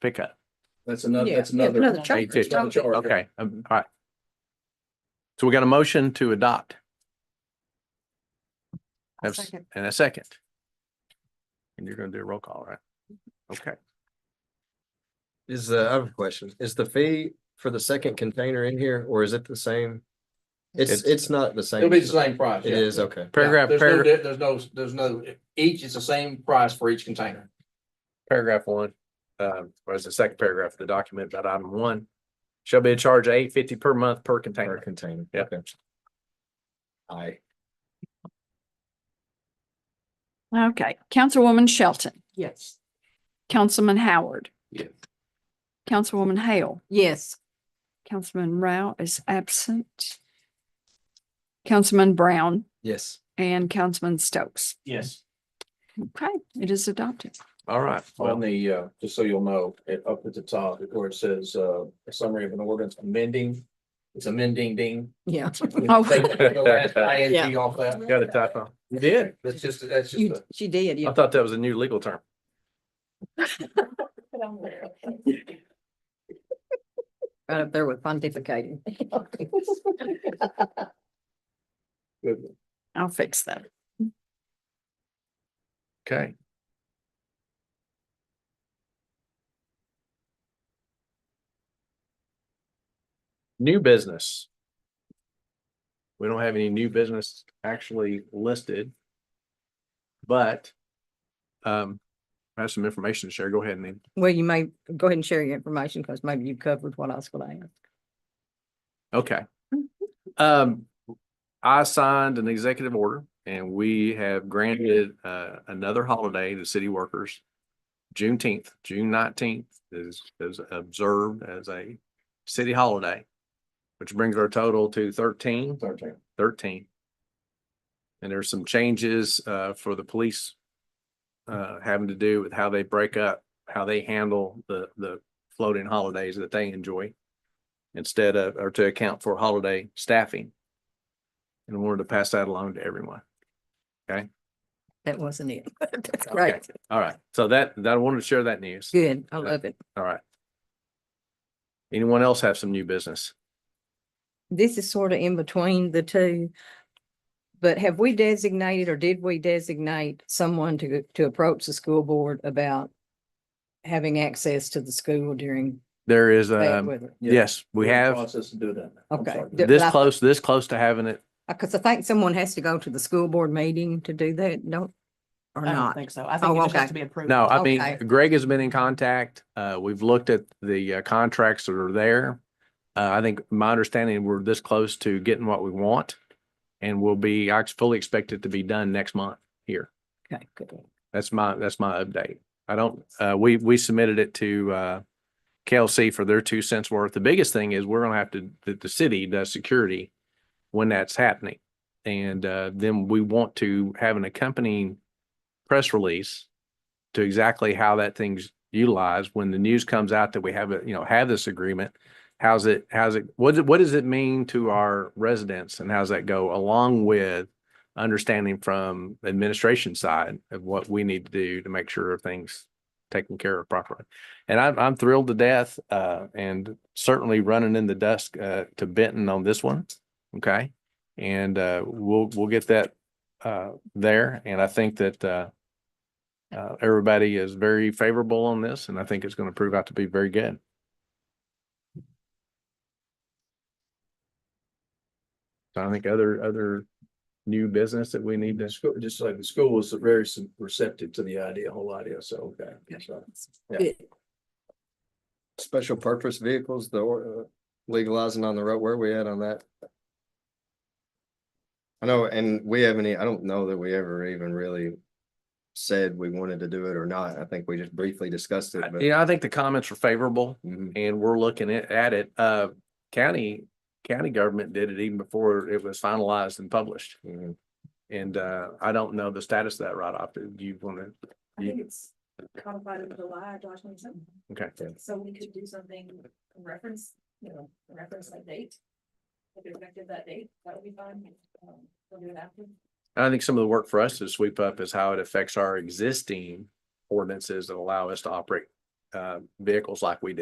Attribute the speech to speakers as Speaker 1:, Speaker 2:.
Speaker 1: pickup.
Speaker 2: That's another,
Speaker 3: Yeah,
Speaker 2: that's
Speaker 3: yeah,
Speaker 2: another.
Speaker 3: another charge.
Speaker 2: that's another charge.
Speaker 1: Okay, um, all right. So we got a motion to adopt.
Speaker 4: I'll
Speaker 1: Have s-
Speaker 4: second.
Speaker 1: And a second. And you're gonna do a roll call, right? Okay,
Speaker 5: Is the, I have a question. Is the fee for the second container in here or is it the same? It's,
Speaker 1: It's-
Speaker 5: it's not the same.
Speaker 2: It'll be the same price.
Speaker 5: It
Speaker 2: yeah.
Speaker 5: is, okay.
Speaker 2: Yeah,
Speaker 1: paragraph,
Speaker 2: There's no,
Speaker 1: paragraph,
Speaker 2: di- there's no, there's no, each is the same price for each container.
Speaker 1: paragraph one, uh, or is the second paragraph of the document about item one. Shall be a charge of eight fifty per month per
Speaker 5: Per
Speaker 1: container.
Speaker 5: container.
Speaker 1: Yeah.
Speaker 5: Okay. I,
Speaker 4: Okay, Councilwoman Shelton,
Speaker 3: Yes.
Speaker 4: Councilman Howard.
Speaker 2: Yes.
Speaker 4: Councilwoman Hale,
Speaker 3: Yes.
Speaker 4: Councilman Rao is absent. Councilman Brown
Speaker 5: yes.
Speaker 4: and Councilman Stokes.
Speaker 2: Yes.
Speaker 4: Okay, it is adopted.
Speaker 1: All right,
Speaker 2: On
Speaker 1: well,
Speaker 2: the, uh, just so you'll know, it up at the top, where it says, uh, a summary of an ordinance amending. It's amending ding.
Speaker 3: Yeah.
Speaker 4: Oh.
Speaker 2: Take the last ing off that.
Speaker 1: got a typo. You did.
Speaker 2: That's just, that's just.
Speaker 3: You,
Speaker 2: a-
Speaker 3: she did.
Speaker 1: I thought that was a new legal term.
Speaker 3: Right up there with pontificating.
Speaker 4: I'll fix that.
Speaker 1: Okay. New business. We don't have any new business actually listed. But um, I have some information to share. Go ahead and then,
Speaker 3: Well, you may go ahead and share your information because maybe you covered what I was going to ask.
Speaker 1: okay. Um, I signed an executive order and we have granted uh another holiday to city workers. Juneteenth, June nineteenth is is observed as a city holiday. Which brings our total to thirteen,
Speaker 2: Thirteen.
Speaker 1: thirteen. And there's some changes uh for the police. Uh, having to do with how they break up, how they handle the the floating holidays that they enjoy. Instead of, or to account for holiday staffing. And I wanted to pass that along to everyone.
Speaker 3: That wasn't it. That's great.
Speaker 1: All right, so that, that, I wanted to share that news.
Speaker 3: Good. I love it.
Speaker 1: All right. Anyone else have some new business?
Speaker 3: This is sort of in between the two. But have we designated or did we designate someone to, to approach the school board about having access to the school during
Speaker 1: There is,
Speaker 3: bad
Speaker 1: um,
Speaker 3: weather?
Speaker 1: yes, we have
Speaker 2: Process to do that. I'm
Speaker 3: Okay.
Speaker 2: sorry.
Speaker 1: this close, this close to having it.
Speaker 3: Because Uh, I think someone has to go to the school board meeting to do that, don't, or
Speaker 6: I don't
Speaker 3: not?
Speaker 6: think so. I
Speaker 3: Oh,
Speaker 6: think it just
Speaker 3: okay.
Speaker 6: has to be approved.
Speaker 1: No, I mean,
Speaker 3: Okay.
Speaker 1: Greg has been in contact. Uh, we've looked at the uh, contracts that are there. Uh, I think my understanding, we're this close to getting what we want. And we'll be, I fully expect it to be done next month here.
Speaker 3: Okay, good.
Speaker 1: That's my, that's my update. I don't, uh, we, we submitted it to, uh, KLC for their two cents worth. The biggest thing is we're gonna have to, that the city does security when that's happening. And, uh, then we want to have an accompanying press release to exactly how that thing's utilized. When the news comes out that we have, a you know, have this agreement, how's it, how's it, what, does- what does it mean to our residents and how's that go along with understanding from administration side of what we need to do to make sure things taken care of properly. And I'm, I'm thrilled to death, uh, and certainly running in the dusk, uh, to Benton on this one. Okay. And, uh, we'll, we'll get that, uh, there. And I think that, uh, uh, everybody is very favorable on this and I think it's going to prove out to be very good. So I think other, other new business that we need to
Speaker 2: The school, just like the school was very s- receptive to the idea, whole idea, so, okay. so.
Speaker 5: Special purpose vehicles, the or- uh, legalizing on the road, where we at on that? I know, and we haven't, e- I don't know that we ever even really said we wanted to do it or not. I think we just briefly discussed it, but.
Speaker 1: Yeah, I think the comments were favorable
Speaker 5: Mhm.
Speaker 1: and we're looking at, at it. Uh, county, county government did it even before it was finalized and published.
Speaker 5: Mhm.
Speaker 1: And, uh, I don't know the status of that right off. Do you want to?
Speaker 7: I think it's codified in July, Josh, or something.
Speaker 1: Okay.
Speaker 7: So we could do something in reference, you know, in reference that date. If it's effective that date, that would be fine. Um, We'll do it after.
Speaker 1: I think some of the work for us to sweep up is how it affects our existing ordinances that allow us to operate uh, vehicles like we did.